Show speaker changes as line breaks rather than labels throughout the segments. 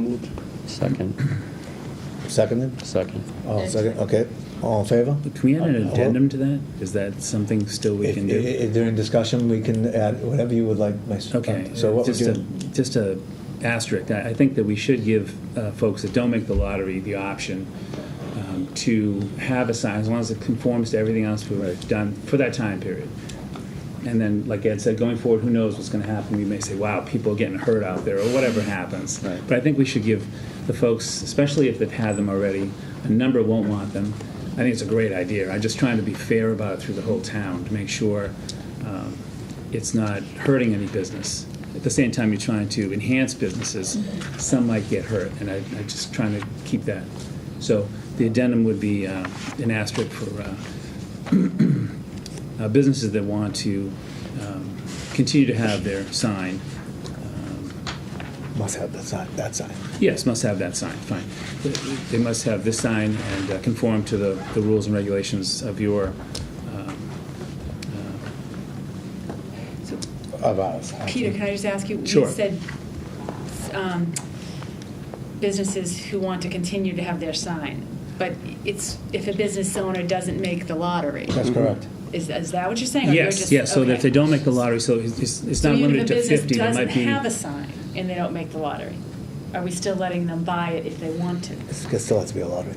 moved.
Second,
Seconded?
second.
Oh, second, okay. All in favor?
Can we add an addendum to that? Is that something still we
If-
can
i-
do?
i- During discussion, we can add whatever you would like. Mr.
Okay,
So what would
just
you?
a, just a asterisk. I, I think that we should give uh, folks that don't make the lottery the option um, to have a sign, as long as it conforms to everything else we've done for that time period. And then, like Ed said, going forward, who knows what's gonna happen? We may say, wow, people are getting hurt out there, or whatever happens.
Right.
But I think we should give the folks, especially if they've had them already, a number won't want them. I think it's a great idea. I'm just trying to be fair about it through the whole town, to make sure um, it's not hurting any business. At the same time, you're trying to enhance businesses, some might get hurt, and I, I'm just trying to keep that. So the addendum would be uh, an asterisk for uh, uh, businesses that want to um, continue to have their sign. Um,
Must have that sign, that sign.
Yes, must have that sign, fine. They- They must have this sign and uh, conform to the, the rules and regulations of your, um,
Of ours. I
Peter,
think.
can I just ask you?
Sure.
You said um, businesses who want to continue to have their sign, but it's, if a business owner doesn't make the lottery,
That's correct.
is, is that what you're saying? Or you're
yes,
just-
yes, so that if
okay.
they don't make the lottery, so it's, it's- it's not limited to
So even if a
fifty,
business
it might
doesn't
be.
have a sign and they don't make the lottery, are we still letting them buy it if they want to?
It still has to be a lottery.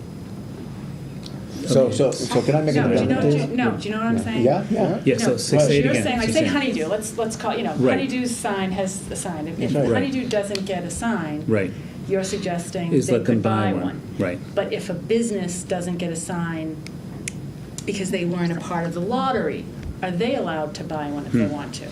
So, so, so can I make
No,
an
do you know,
amendment?
do
please?
you- no, do you know what I'm saying?
Yeah, yeah.
Yeah, so
No,
say say it
You're
again.
saying, like,
She's
say
saying-
honeydew, let's, let's call, you know,
Right.
honeydew's sign has a sign. If- If
Right.
honeydew doesn't get a sign.
Right,
You're suggesting
Is
they
let them
could
buy
buy
one.
one.
Right.
But if a business doesn't get a sign because they weren't a part of the lottery, are they allowed to buy one if
Hmm.
they want to?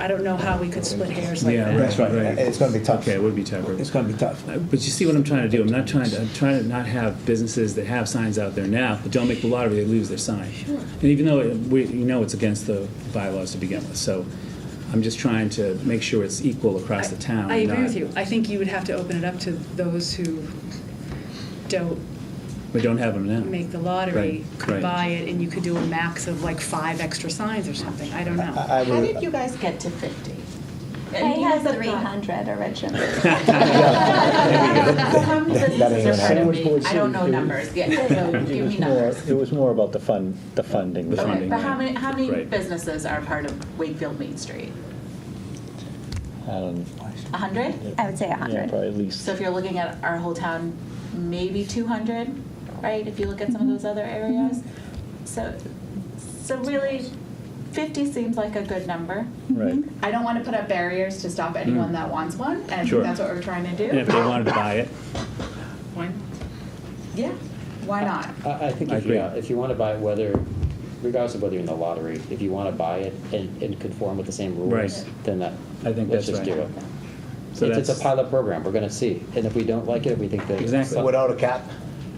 I don't know how we could split hairs like
Yeah,
that.
That's right.
Right.
It's gonna be tough.
okay, it would be tough.
It's gonna be tough.
Uh, But you see what I'm trying to do? I'm not trying to, I'm trying to not have businesses that have signs out there now, that don't make the lottery, they lose their sign. And even though it- we, you know it's against the bylaws to begin with, so I'm just trying to make sure it's equal across the town.
I agree
not-
with you. I think you would have to open it up to those who don't
We don't have them now.
make the lottery,
Right,
could
right.
buy it, and you could do a max of like five extra signs or something. I don't know.
I
How
would,
did you guys get to 50?
I had
the
300 originally.
How many
That- that ain't
businesses
gonna
are part
happen.
of me? I don't know numbers yet, so give me numbers.
It was more about the fund, the funding.
The
Okay,
funding,
but how
right.
many, how many
Right.
businesses are part of Wakefield Main Street?
Um,
100?
I would say
Yeah,
100.
probably at least.
So if you're looking at our whole town, maybe 200, right? If you look at some of those other areas. So, so really, 50 seems like a good number.
Right.
I don't want to put up barriers to stop anyone that wants one, and I
Sure.
think that's what we're trying to
And if
do.
they wanted to buy it,
Yeah, why not?
I, I think
I
if you,
agree.
if you want to buy it, whether, regardless of whether you're in the lottery, if you want to buy it and, and conform with the same rules,
Right.
then that,
I think
let's
that's
just do
right.
it.
So
It's, it's
that's-
a pilot program, we're gonna see, and if we don't like it, we think that.
Exactly.
some-
without a cap,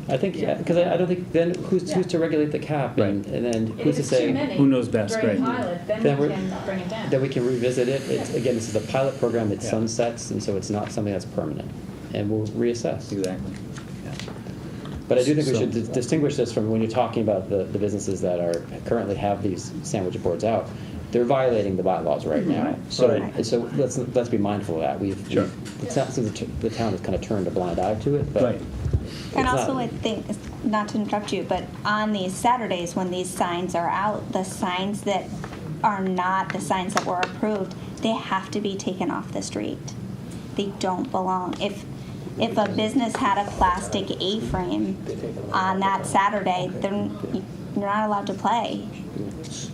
I think, yeah, because I, I don't think, then who's, who's to regulate the cap and, and then who's to say?
who knows best, right?
Then we can bring it down. Then we can revisit it, it's, again, this is a pilot program that
Yeah.
sunsets, and so it's not something that's permanent, and we'll reassess.
Exactly.
But I do think we
So-
should dis- distinguish this from when you're talking about the, the businesses that are, currently have these sandwich boards out. They're violating the bylaws
Mm-hmm.
right now. So,
Right.
so let's, let's be mindful of that. We've,
Sure.
we've- it's not, so the t- the town has kind of turned a blind eye to it, but.
Right.
it's
And
not-
also, I think, not to interrupt you, but on these Saturdays when these signs are out, the signs that are not the signs that were approved, they have to be taken off the street. They don't belong. If, if a business had a plastic A-frame on that Saturday, then you're not allowed to play.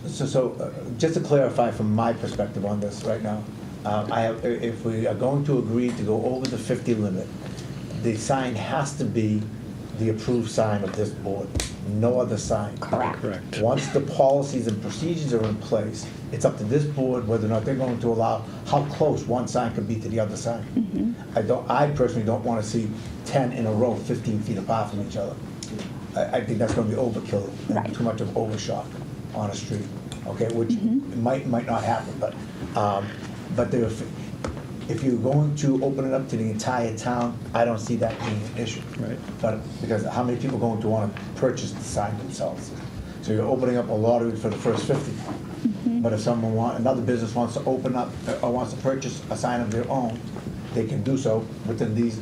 So, so, uh, just to clarify from my perspective on this right now, uh, I have, i- if we are going to agree to go over the fifty limit, the sign has to be the approved sign of this board, no other sign.
Correct.
Correct.
Once the policies and procedures are in place, it's up to this board whether or not they're going to allow how close one sign could be to the other sign. I don't, I personally don't want to see ten in a row, fifteen feet apart from each other. I, I think that's going to be overkill, and
Right.
too much of overshot on a street, okay, which might, might not happen, but, um, but there, if- if you're going to open it up to the entire town, I don't see that being an issue.
Right.
But, because how many people are going to want to purchase the sign themselves? So you're opening up a lottery for the first fifty. But if someone want, another business wants to open up, uh, or wants to purchase a sign of their own, they can do so within these